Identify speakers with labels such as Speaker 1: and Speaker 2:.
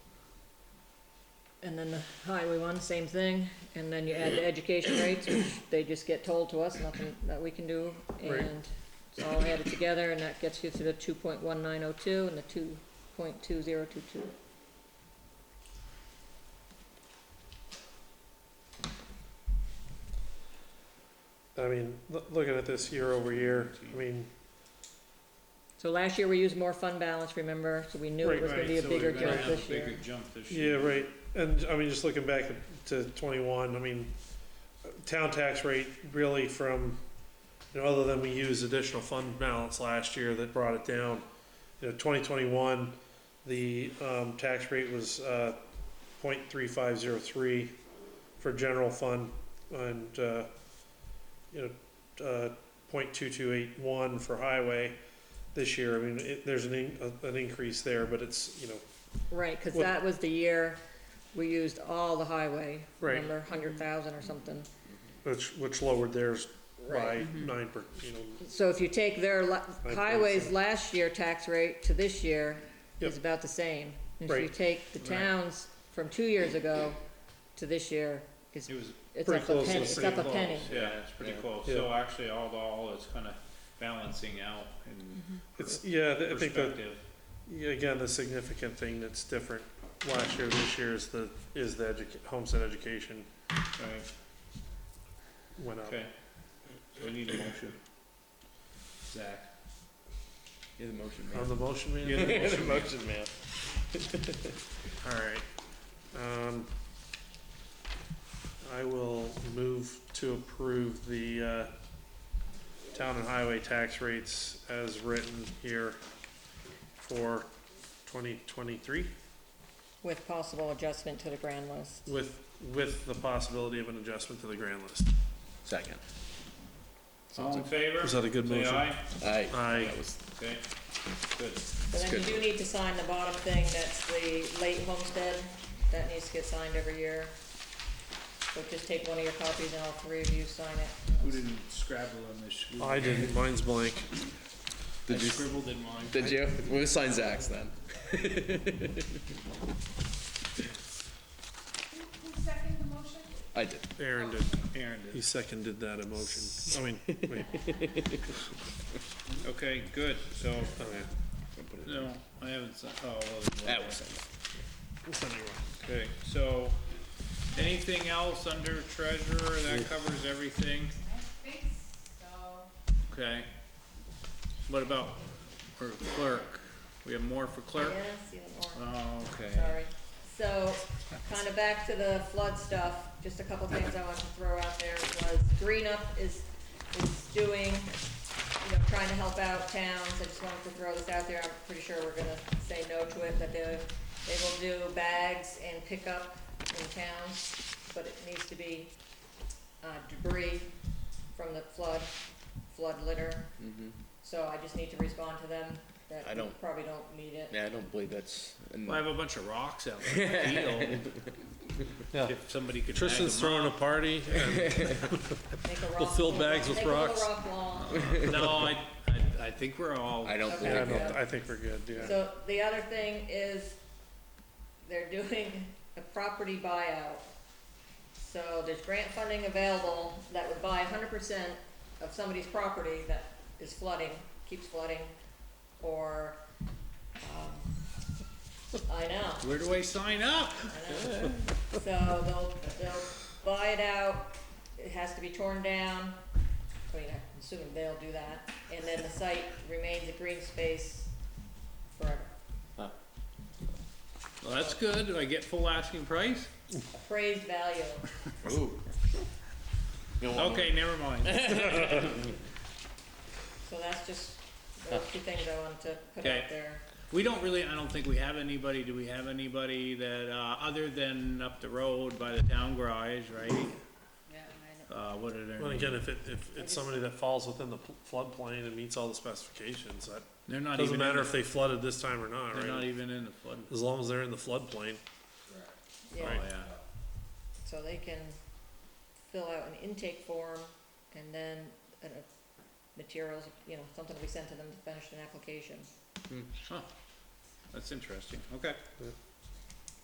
Speaker 1: And then the highway one, same thing, and then you add the education rates, which they just get told to us, nothing that we can do,
Speaker 2: Right.
Speaker 1: and it's all added together, and that gets you to the two point one nine oh two and the two point two zero two two.
Speaker 2: I mean, loo- looking at this year over year, I mean,
Speaker 1: So last year, we used more fund balance, remember, so we knew it
Speaker 2: Right,
Speaker 1: was gonna
Speaker 2: right,
Speaker 1: be a
Speaker 3: so
Speaker 1: bigger
Speaker 3: we're gonna
Speaker 1: jump
Speaker 3: have a
Speaker 1: this year.
Speaker 3: Bigger jump this
Speaker 2: yeah,
Speaker 3: year.
Speaker 2: right, and I mean, just looking back to twenty-one, I mean, town tax rate really from, you know, other than we used additional fund balance last year that brought it down. You know, twenty twenty-one, the, um, tax rate was, uh, point three five zero three for general fund and, uh, you know, uh, point two two eight one for highway. This year, I mean, it, there's an, in- an increase there, but it's, you know,
Speaker 1: Right, cause
Speaker 2: Well-
Speaker 1: that was the year we used all the highway,
Speaker 2: Right.
Speaker 1: remember, hundred thousand or something.
Speaker 2: Which, which lowered theirs by
Speaker 1: Right.
Speaker 3: mm-hmm.
Speaker 2: nine per, you know,
Speaker 1: So if you take their la-
Speaker 2: Five
Speaker 1: highways
Speaker 2: percent.
Speaker 1: last year tax rate to this year, is
Speaker 2: Yep.
Speaker 1: about the same. And If you
Speaker 2: Right.
Speaker 1: take the towns from two years ago to this year, it's,
Speaker 3: It was
Speaker 1: it's
Speaker 2: Pretty
Speaker 1: up a
Speaker 2: close to
Speaker 1: penny,
Speaker 2: the
Speaker 1: it's
Speaker 2: same.
Speaker 1: up a
Speaker 3: close,
Speaker 1: penny.
Speaker 3: Yeah, it's pretty
Speaker 4: Yeah.
Speaker 3: close.
Speaker 2: Yeah.
Speaker 3: So actually, all the all is kind of balancing out in
Speaker 2: it's, yeah, I think that,
Speaker 3: perspective.
Speaker 2: yeah, again, the significant thing that's different last year, this year is the, is the educa- homestead education
Speaker 3: Right,
Speaker 2: went up.
Speaker 3: okay. So we need a motion. Zach.
Speaker 4: You're the motion
Speaker 2: On
Speaker 4: man.
Speaker 2: the motion, man?
Speaker 3: You're the motion man.
Speaker 2: man. Alright, um, I will move to approve the, uh, town and highway tax rates as written here for twenty twenty-three.
Speaker 1: With possible adjustment to the grand list.
Speaker 2: With, with the possibility of an adjustment to the grand list.
Speaker 4: Second.
Speaker 3: All in favor?
Speaker 2: Is that a good
Speaker 3: Say
Speaker 2: motion?
Speaker 3: aye.
Speaker 4: Aye.
Speaker 2: Aye.
Speaker 4: That was,
Speaker 3: Okay, good.
Speaker 1: But then you
Speaker 4: good.
Speaker 1: do need to sign the bottom thing, that's the late homestead, that needs to get signed every year. So just take one of your copies and all three of you sign
Speaker 3: Who
Speaker 1: it.
Speaker 3: didn't scrabble on this? Who-
Speaker 2: I didn't, mine's blank.
Speaker 3: I
Speaker 4: did you,
Speaker 3: scribbled in mine.
Speaker 4: did you? We'll sign Zach's then. I did.
Speaker 2: Aaron did.
Speaker 3: Aaron did.
Speaker 2: He seconded that emotion. I mean, wait,
Speaker 3: Okay, good. So,
Speaker 2: okay.
Speaker 3: no, I haven't, si- oh. well,
Speaker 4: That was
Speaker 2: It's anyway.
Speaker 3: Okay, so, anything else under treasurer? That covers everything?
Speaker 5: I think so.
Speaker 3: Okay. What about for clerk? We have more for clerk?
Speaker 1: Yes, you have more.
Speaker 3: Oh, okay.
Speaker 1: sorry. So, kind of back to the flood stuff, just a couple things I wanted to throw out there was Green Up is, is doing, you know, trying to help out towns, I just wanted to throw this out there, I'm pretty sure we're gonna say no to it, but they, they will do bags and pickup in towns, but it needs to be, uh, debris from the flood, flood litter. So I just need to respond to them that
Speaker 4: Mm-hmm. I
Speaker 1: we
Speaker 4: don't-
Speaker 1: probably don't need it.
Speaker 4: Yeah, I don't believe that's. in-
Speaker 3: Well, I have a bunch of rocks out there.
Speaker 2: Yeah.
Speaker 3: If somebody could bag
Speaker 2: Tristan's
Speaker 3: them
Speaker 2: throwing a party and
Speaker 1: Make a rock.
Speaker 2: fill bags with
Speaker 1: make a little
Speaker 2: rocks.
Speaker 1: rock wall.
Speaker 3: up. No, I, I, I think we're all,
Speaker 4: I don't
Speaker 1: Okay.
Speaker 2: Yeah, I
Speaker 4: believe
Speaker 2: don't, I think we're good, yeah.
Speaker 1: So the other thing is, they're doing a property buyout. So there's grant funding available that would buy hundred percent of somebody's property that is flooding, keeps flooding, or, um, I know.
Speaker 3: where do I sign up?
Speaker 1: So they'll, they'll buy it out, it has to be torn down, I mean, I'm assuming they'll do that, and then the site remains a green space forever.
Speaker 3: Well, that's good. Do I get full asking price?
Speaker 1: Appraised value,
Speaker 4: Ooh. No, no.
Speaker 3: Okay, never mind.
Speaker 1: so that's just, those two things I wanted to put
Speaker 3: Okay.
Speaker 1: out there.
Speaker 3: We don't really, I don't think we have anybody, do we have anybody that, uh, other than up the road by the town garage, right?
Speaker 5: Yeah, I know.
Speaker 3: Uh, what are their
Speaker 2: Well,
Speaker 3: names?
Speaker 2: again, if it, if it's somebody that falls within the pl- floodplain and meets all the specifications, that
Speaker 3: They're not even.
Speaker 2: doesn't
Speaker 3: in
Speaker 2: matter
Speaker 3: the-
Speaker 2: if they flooded this time or not,
Speaker 3: They're not
Speaker 2: right?
Speaker 3: even in the flood.
Speaker 2: As long as they're in the floodplain.
Speaker 3: Oh,
Speaker 1: Yeah,
Speaker 3: yeah.
Speaker 1: so they can fill out an intake form, and then, uh, materials, you know, something we sent to them to finish an application.
Speaker 3: Hmm, Huh, that's interesting, okay.
Speaker 2: Yeah.